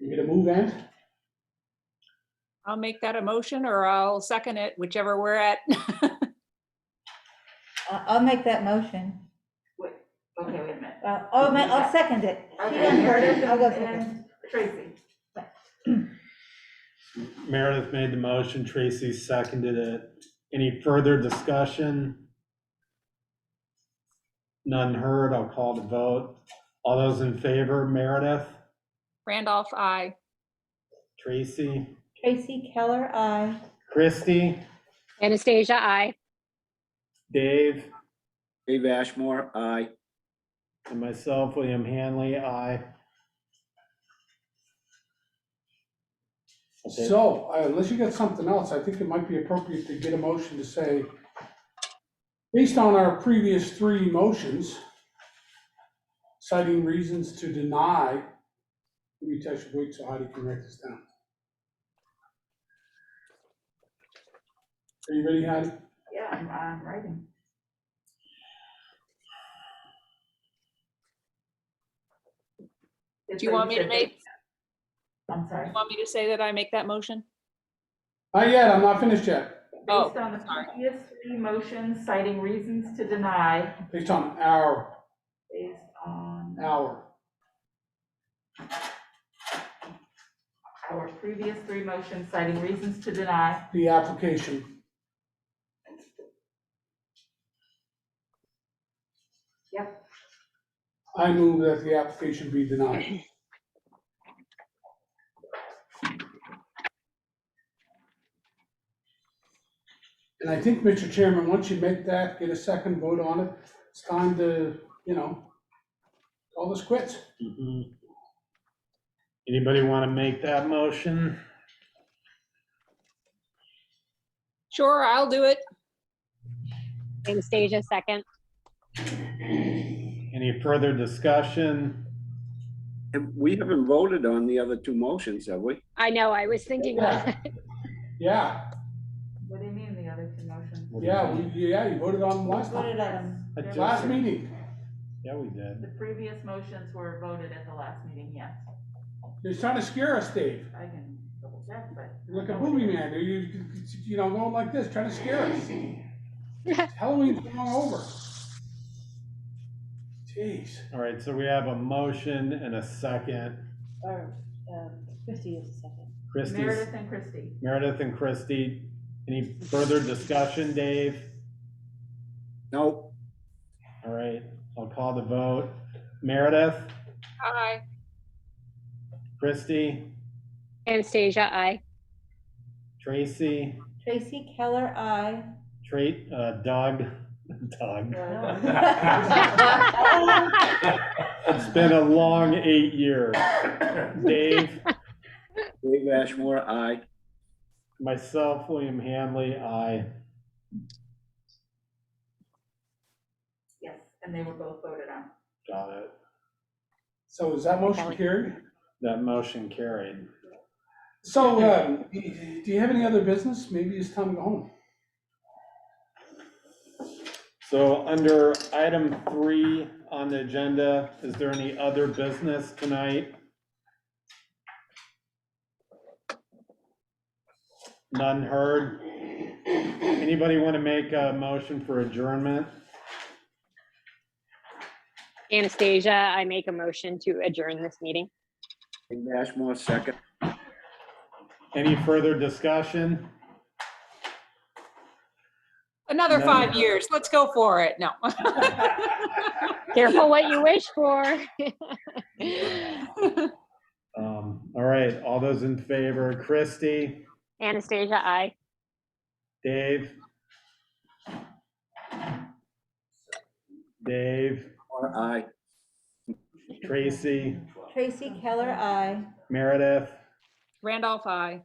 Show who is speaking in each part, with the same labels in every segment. Speaker 1: You're gonna move that?
Speaker 2: I'll make that a motion or I'll second it, whichever we're at.
Speaker 3: I- I'll make that motion.
Speaker 4: Okay, wait a minute.
Speaker 3: Uh, I'll, ma- I'll second it. She
Speaker 4: Okay,
Speaker 3: done
Speaker 4: you're
Speaker 3: heard it, I'll go
Speaker 4: and
Speaker 3: second.
Speaker 4: Tracy.
Speaker 5: Meredith made the motion, Tracy seconded it. Any further discussion? None heard, I'll call the vote. All those in favor, Meredith,
Speaker 2: Randolph, I.
Speaker 5: Tracy,
Speaker 3: Tracy Keller, I.
Speaker 5: Christie,
Speaker 6: Anastasia, I.
Speaker 5: Dave,
Speaker 7: Dave Ashmore, aye.
Speaker 5: and myself, William Hanley, aye. Okay.
Speaker 1: So uh, unless you got something else, I think it might be appropriate to get a motion to say, based on our previous three motions, citing reasons to deny, let me touch wait so Heidi can write this down. Are you ready, Heidi?
Speaker 4: Yeah, I'm, I'm writing.
Speaker 2: Do you want me to make,
Speaker 4: I'm sorry.
Speaker 2: you want me to say that I make that motion?
Speaker 1: Not yet, I'm not finished yet,
Speaker 2: Oh,
Speaker 4: Based on the
Speaker 2: sorry.
Speaker 4: previous three motions citing reasons to deny,
Speaker 1: based on our,
Speaker 4: based on
Speaker 1: our,
Speaker 4: our previous three motions citing reasons to deny,
Speaker 1: the application.
Speaker 4: Yep.
Speaker 1: I move that the application be denied. And I think, Mr. Chairman, once you make that, get a second vote on it, it's time to, you know, all this quits.
Speaker 5: Mhm. Anybody want to make that motion?
Speaker 2: sure, I'll do it.
Speaker 6: Anastasia, second.
Speaker 5: Any further discussion?
Speaker 7: And we haven't voted on the other two motions, have we?
Speaker 6: I know, I was thinking,
Speaker 1: Yeah. Yeah,
Speaker 4: what do you mean the other two motions? Um,
Speaker 1: yeah, we, yeah, you voted on them last
Speaker 3: Voted
Speaker 1: time,
Speaker 3: on.
Speaker 5: I just-
Speaker 1: last meeting.
Speaker 5: Yeah, we did.
Speaker 4: The previous motions were voted at the last meeting, yes.
Speaker 1: They're trying to scare us, Dave.
Speaker 4: I can double check, but.
Speaker 1: You're like a boogeyman, You're- you, you know, going like this, trying to scare us. Halloween's long over. Jeez.
Speaker 5: All right, so we have a motion and a second.
Speaker 8: Or, um, Christie is the second.
Speaker 5: Christie's,
Speaker 4: Meredith and Christie.
Speaker 5: Meredith and Christie, any further discussion, Dave?
Speaker 7: No,
Speaker 5: All right, I'll call the vote. Meredith,
Speaker 2: I.
Speaker 5: Christie,
Speaker 6: Anastasia, I.
Speaker 5: Tracy,
Speaker 3: Tracy Keller, I.
Speaker 5: Tra- uh, Doug, Doug. It's been a long eight years. Dave,
Speaker 7: Dave Ashmore, aye.
Speaker 5: myself, William Hanley, I.
Speaker 4: Yes, and they were both voted on.
Speaker 5: Got it.
Speaker 1: So is that motion carried?
Speaker 5: That motion carried.
Speaker 1: So, uh, do you have any other business? Maybe it's time to go home.
Speaker 5: So under item three on the agenda, is there any other business tonight? None heard. Anybody want to make a motion for adjournment?
Speaker 6: Anastasia, I make a motion to adjourn this meeting.
Speaker 7: Dave Ashmore, second.
Speaker 5: Any further discussion?
Speaker 2: Another
Speaker 5: No.
Speaker 2: five years. Let's go for it. No.
Speaker 6: Careful what you wish for.
Speaker 5: Um, All right, all those in favor, Christie,
Speaker 6: Anastasia, I.
Speaker 5: Dave? Dave,
Speaker 7: Ashmore, Aye.
Speaker 5: Tracy,
Speaker 3: Tracy Keller, I.
Speaker 5: Meredith?
Speaker 2: Randolph, I.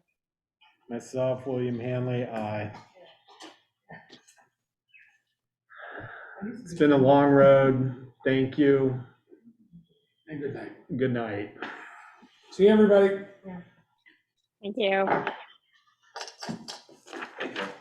Speaker 5: Myself, William Hanley, aye. It's been a long road. Thank you.
Speaker 1: And good night.
Speaker 5: Good night.
Speaker 1: See you, everybody.
Speaker 6: Thank you.
Speaker 9: Thank you.